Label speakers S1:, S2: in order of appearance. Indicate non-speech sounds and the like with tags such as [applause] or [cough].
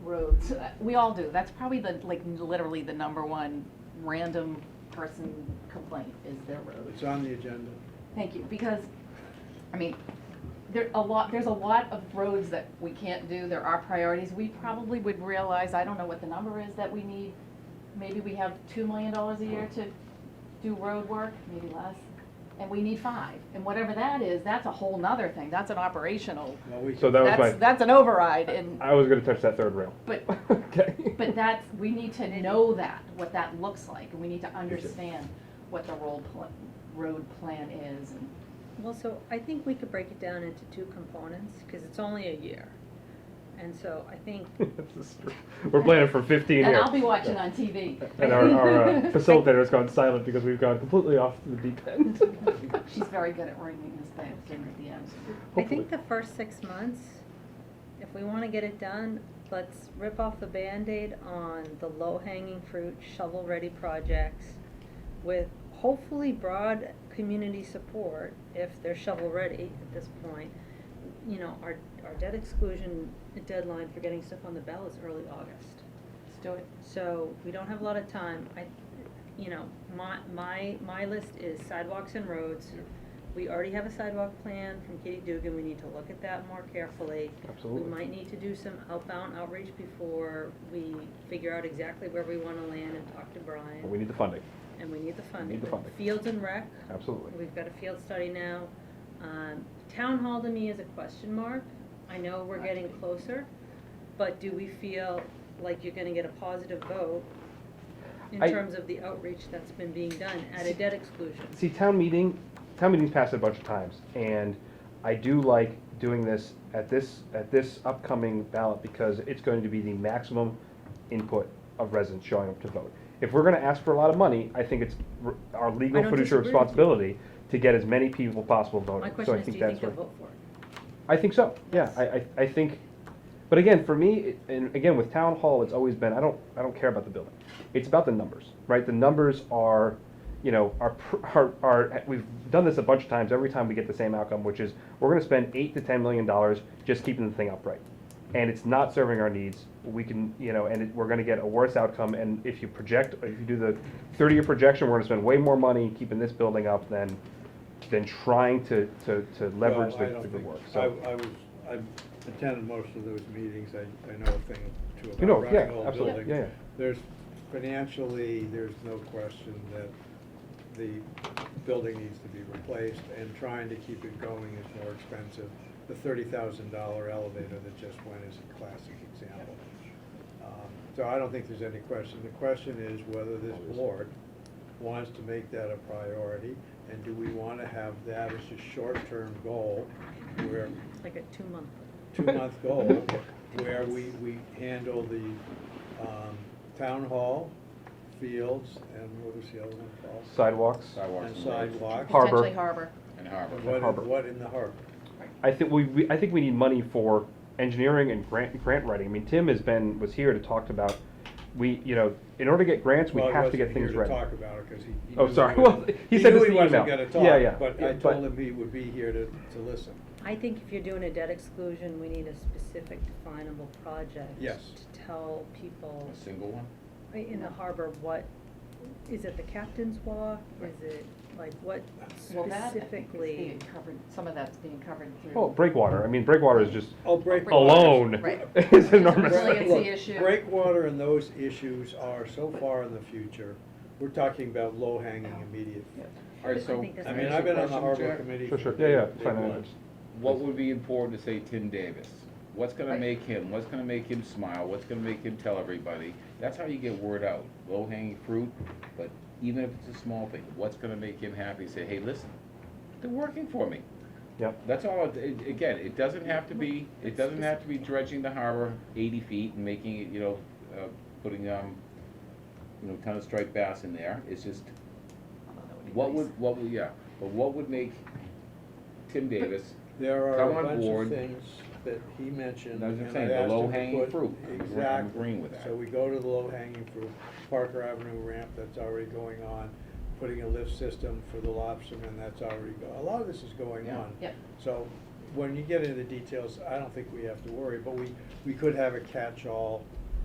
S1: roads. Uh, We all do. That's probably the, like, literally the number one random person complaint is their road.
S2: It's on the agenda.
S1: Thank you, because, I mean, there, a lot, there's a lot of roads that we can't do, there are priorities. We probably would realize, I don't know what the number is that we need, maybe we have two million dollars a year to do road work, maybe less, and we need five. And whatever that is, that's a whole nother thing, that's an operational,
S2: Well, we
S3: So
S2: can,
S3: that was
S1: that's,
S3: my.
S1: that's an override, and,
S3: I was going to touch that third rail. [laughs]
S1: but,
S3: okay.
S1: but
S3: [laughs]
S1: that's, we need to know that, what that looks like, and we need to understand what the road pl- road plan is, and
S4: Well, so I think we could break it down into two components, because it's only a year. And so I think,
S3: This is true. We're planning for 15
S1: And
S3: here.
S1: I'll be watching on TV.
S3: And our,
S1: [laughs]
S3: our uh, facilitator has gone silent because we've gone completely off the deep
S4: [laughs]
S3: end.
S1: She's very good at ringing this thing in at the end.
S4: I
S3: Hopefully.
S4: think the first six months, if we wanna get it done, let's rip off the Band-Aid on the low-hanging fruit, shovel-ready projects with hopefully broad community support, if they're shovel-ready at this point. You know, our, our debt exclusion deadline for getting stuff on the ballot is early August.
S1: Let's do it.
S4: So we don't have a lot of time. I, you know, my, my, my list is sidewalks and roads. We already have a sidewalk plan from Katie Dugan. We need to look at that more carefully. We
S3: Absolutely.
S4: might need to do some outbound outreach before we figure out exactly where we wanna land and talk to
S3: But we
S4: Brian.
S3: need the funding.
S4: And we need the funding.
S3: the funding.
S4: Fields and rec,
S3: Absolutely.
S4: we've got a field study now. Um, town hall to me is a question mark. I know we're getting closer, but do we feel like you're gonna get a positive vote in
S3: I-
S4: terms of the outreach that's been being done at a debt exclusion?
S3: See, town meeting, town meeting's passed a bunch of times, and I do like doing this at this, at this upcoming ballot, because it's going to be the maximum input of residents showing up to vote. If we're gonna ask for a lot of money, I think it's r- our
S4: I
S3: legal
S4: don't
S3: fiduciary
S4: disagree with you.
S3: responsibility to get as many people possible voting.
S4: My
S3: So
S4: question
S3: I
S4: is, do you
S3: that's
S4: think they'll
S3: what-
S4: vote for it?
S3: I think so, yeah,
S4: Yes.
S3: I, I, I think, but again, for me, it- and again, with town hall, it's always been, I don't, I don't care about the building. It's about the numbers, right? The numbers are, you know, are, pr- are, are, we've done this a bunch of times, every time we get the same outcome, which is, we're gonna spend eight to ten million dollars just keeping the thing upright. And it's not serving our needs, we can, you know, and it- we're gonna get a worse outcome, and if you project, if you do the thirty-year projection, we're gonna spend way more money keeping this building up than, than trying to, to, to leverage
S2: Well, I
S3: the,
S2: don't
S3: the
S2: think-
S3: work, so.
S2: I, I was, I attended most of those meetings, I, I know a thing or two
S3: You know,
S2: about
S3: yeah,
S2: running whole
S3: absolutely,
S2: buildings.
S3: yeah, yeah.
S2: There's, financially, there's no question that the building needs to be replaced, and trying to keep it going is more expensive. The thirty thousand dollar elevator that just went is a classic example. Um, So I don't think there's any question. The question is whether this board wants to make that a priority, and do we want to have that as a short-term goal, where,
S4: Like a two-month,
S2: two-month goal, where we, we handle the um, town hall, fields, and what was the other one called?
S3: sidewalks.
S5: Sidewalks.
S2: And
S5: roads,
S2: sidewalks.
S3: Harbor.
S1: Potentially harbor.
S5: And
S2: And
S5: harbor.
S2: what,
S3: Harbor.
S2: in- what in the harbor?
S3: I think we, we, I think we need money for engineering and grant, grant writing. I mean, Tim has been, was here to talk about, we, you know, in order to get grants, we
S2: Well, he
S3: have to get
S2: wasn't here
S3: things ready.
S2: to talk about it, 'cause he- he
S3: Oh,
S2: knew
S3: sorry.
S2: he
S3: Well,
S2: wasn't-
S3: he said this in
S2: knew
S3: the
S2: he wasn't
S3: email.
S2: gonna
S3: Yeah, yeah.
S2: talk, but I
S3: Yeah, but-
S2: told him he would be here to, to listen.
S4: I think if you're doing a debt exclusion, we need a specific definable project.
S2: Yes.
S4: To tell people
S5: A single one?
S4: in the harbor what, is it the captain's walk? Is it, like, what
S1: Well, that, I think, is
S4: specifically?
S1: being covered, some of that's being covered through.
S3: Well, breakwater, I mean, breakwater is just
S2: Oh, breakwater.
S3: Oh, alone
S1: Right.
S3: [laughs] is [laughs] enormous.
S1: Resiliency
S2: Look,
S1: issue.
S2: Breakwater and those issues are so far in the future, we're talking about low-hanging immediate.
S5: All right,
S4: I
S5: so,
S4: think that's
S2: I
S5: can
S2: mean,
S5: ask
S2: I've
S5: you a
S2: been on the
S5: question,
S2: harbor
S5: Jack?
S2: committee.
S3: Sure, sure,
S2: for
S3: yeah, yeah,
S2: day
S3: fine, I
S2: one.
S3: understand.
S5: What would be important to say Tim Davis? What's gonna
S1: Right.
S5: make him, what's gonna make him smile, what's gonna make him tell everybody? That's how you get word out, low hanging fruit, but even if it's a small thing, what's gonna make him happy, say, hey, listen, they're working for me.
S3: Yep.
S5: That's all, it- it- again, it doesn't have to be, it doesn't have to be dredging the harbor eighty feet and making it, you know, uh, putting, um, you know, ton of striped bass in there, it's just,
S1: Although that be
S5: what
S1: nice.
S5: would, what would, yeah, but what would make Tim Davis
S2: There are
S5: Come
S2: a
S5: on
S2: bunch of
S5: board.
S2: things that he mentioned.
S5: That's what I'm
S2: and
S5: saying,
S2: I
S5: the
S2: asked him to
S5: low-hanging
S2: put-
S5: fruit. I'm agreeing- I'm
S2: Exactly.
S5: agreeing with that.
S2: So we go to the low-hanging fruit, Parker Avenue ramp, that's already going on, putting a lift system for the lobstermen, that's already go, a lot of this is going
S5: Yeah.
S2: on.
S1: Yep.
S2: So when you get into the details, I don't think we have to worry, but we, we could have a catch-all